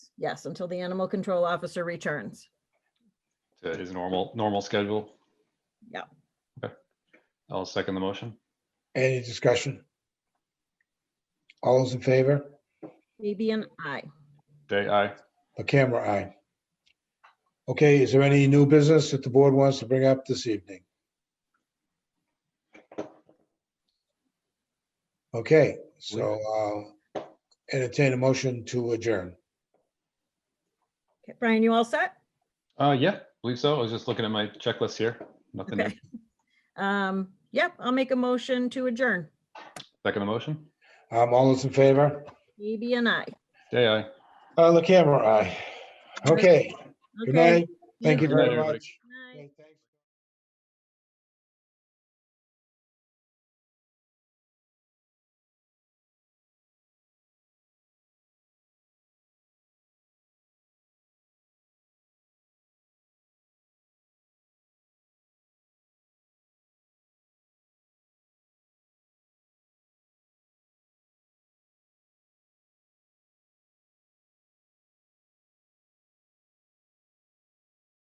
Yes, until the animal control officer returns. to his normal, normal schedule? Yeah. Okay. I'll second the motion. Any discussion? All those in favor? Maybe an I. Day, aye. The camera eye. Okay, is there any new business that the board wants to bring up this evening? Okay, so I'll entertain a motion to adjourn. Okay, Brian, you all set? Uh, yeah, believe so. I was just looking at my checklist here. Nothing. new. Okay. Um, yep, I'll make a motion to adjourn. Second the motion. Um, all those in favor? Maybe an I. Day, aye. Uh, the camera eye. Okay, good Okay. night. Thank you Good night, very everybody. much.